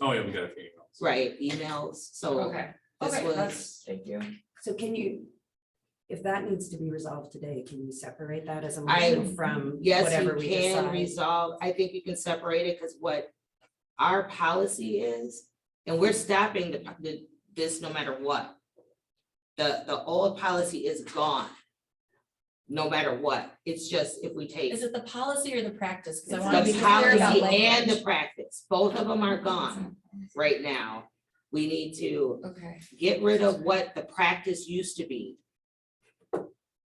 Oh, yeah, we got a few emails. right, emails, so Okay, this okay, was- that's, thank you. So can you, if that needs to be resolved today, can you separate that as a I- Mm-hmm. motion from Yes, whatever you we can decide? resolve, I think you can separate it, because what our policy is, and we're stopping the, the- this no matter what. The, the old policy is gone. No matter what, it's just if we take Is it the policy or the practice? Cause I It's wanna be the clear about policy and the language. practice, both of them are gone right now. We need to Okay, get rid of what the practice used to be.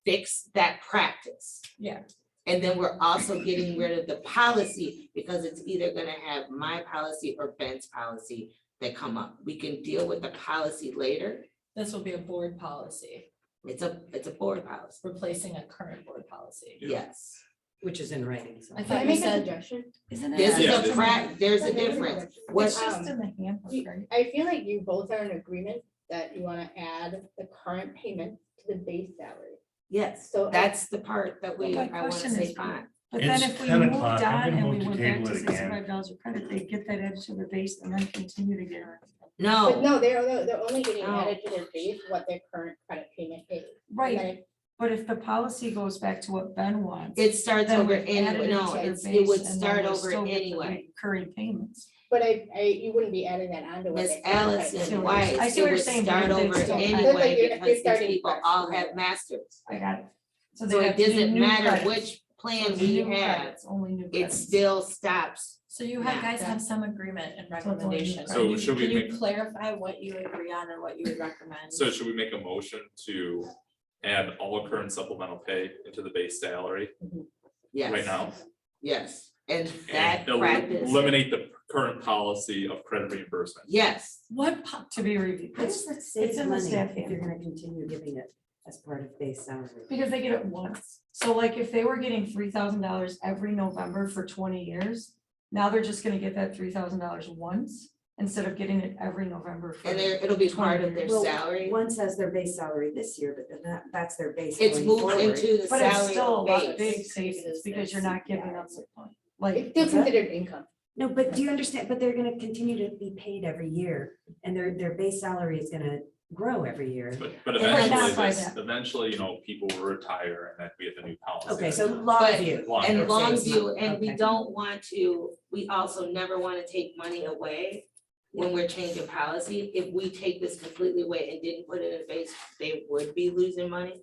Fix that practice. yeah, And then we're also getting rid of the policy because it's either gonna have my policy or Ben's policy that come up. We can deal with the policy later. this will be a board policy, It's a, it's a board policy, replacing a current board policy. yes. Which is in writing, so. I Can I thought you make a said, suggestion? Isn't This Yeah, is a this- prac, there's a difference. What, It's just in the handbook, right? Um, I feel like you both are in agreement that you wanna add the current payment to the base salary. yes, So I- that's the part that we, Well, I my wanna question say is- fine. But then It's if we 10 moved o'clock. on I'm gonna and we move to went back table to it again. sixty-five dollars a credit, they get that added to the base and then continue to get. it. But No, no, they're, they're- they're only getting No. added to their base what their current credit payment is. And Right, then if- but if the policy goes back to what Ben wants. it starts then over we've anyway, added to no, their it's, it base would and then start we're over still with the anyway. Recurring payments. But I, I, you wouldn't be adding that onto. what Miss their current credit see Allison what you're- payment Weiss, I see it what you're would saying, start but it's over still- It's like anyway you're- because you're these starting people fresh. all have masters. I got it. So they it have to do doesn't new matter credits. which So plan it's we new have, credits, Only new it credits. still stops. so you have, Yeah. guys have some agreement and it's only recommendation. right. Can you- So should we Can you make- clarify what you agree on or what you would recommend? So should we make a motion to add all current supplemental pay into the base salary Yes. right now? Yes, and that And el- practice, eliminate the current policy of credit reimbursement. yes, What po- To be reviewed. It's, it's it's in the money staff if you're handbook. gonna continue giving it as part of base salary. Because they get it once. So like if they were getting three thousand dollars every November for twenty years, now they're just gonna get that three thousand dollars once instead of getting it every November. for- and there, it'll be part of their Well, salary. One says their base salary this year, but then that, that's their base It's going moved forward. into the But it's still a salary lot of big base. savings because you're not giving up the point. Like, It's still considered income. No, but do you understand, but they're gonna continue to be paid every year, and their, their base salary is gonna grow every year. But but Yeah, right eventually, now it's like this- that. eventually, you know, people will retire and then we have the new policy. Okay, so But- Longview. Long- And Their base Longview, money, and we okay. don't want to, we also never wanna take money away when we're changing policy. If we take this completely away and didn't put it in base, they would be losing money.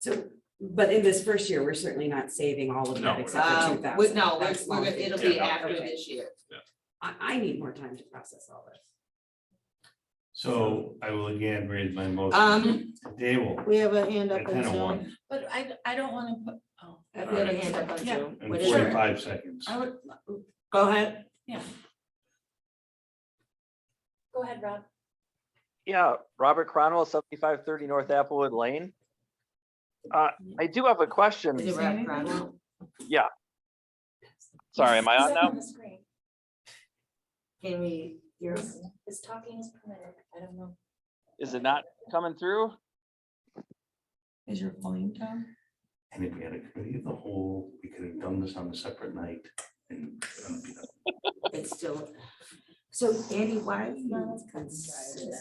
So, but in this first year, we're certainly not saving all of No, that we're except for Uh, two thousand. with, no, we're, we're gonna- it'll be Yeah, no. after Okay. this year. I, I need more time to process all this. So I will again raise my motion. Um, Table we have a hand at ten oh one But I, I don't wanna put, oh, We have a hand up on Yeah. Zoom. and What is it? forty-five seconds. I would, Go ahead. yeah. Go ahead, Rob. Yeah, Robert Cronwell, seventy-five thirty North Applewood Lane. Uh, I do have a Is question. it Rob Cromwell? Sorry, am I on now? Can we, hear us? Is talking is permitted, I don't know. Is it not coming through? is your volume down? And if we had a committee of the whole, we could have done this on a separate night and. um, you know, it's still, so Andy, why are you consistent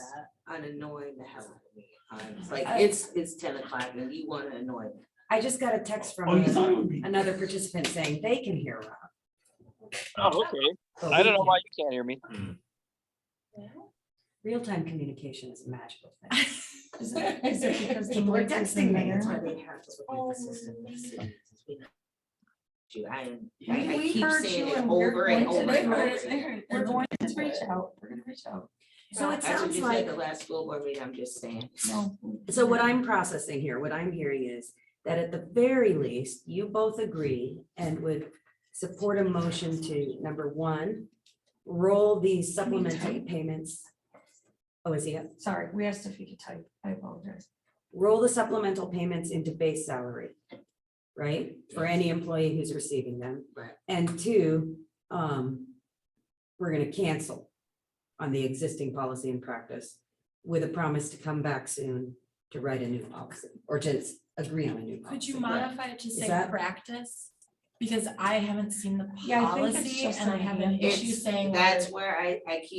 on annoying the hell out of me? Um, it's Like, Uh, it's, it's ten o'clock and you wanna annoy me. I just got a text Oh, from you thought it would be. another participant saying they can hear Rob. Oh, okay. but I we don't know can't. why you can't hear me. Real-time communication is a magical thing. Is it, is it because the People are mic is in texting me, there? Oh. that's why they have to have assistance. Dude, I am, I We, I we keep heard you saying it and we're over going and to, over and over. again. we're going to reach out, we're gonna reach out. So it That's what sounds you said like the last school board meeting, I'm just saying. No. So what I'm processing here, what I'm hearing is that at the very least, you both agree and would support a motion to, number one, roll these supplementary payments. Oh, is he up? Sorry, we asked if you could type, I apologize. Roll the supplemental payments into base salary, right? For any employee who's receiving them. Right. And two, um, we're gonna cancel on the existing policy and practice with a promise to come back soon to write a new policy or to s- agree on a new Could policy. you modify it to Is say that- practice? Because I haven't seen the Yeah, I think it's policy just and I an have an idea. issue It's- saying. whether- That's where I, I keep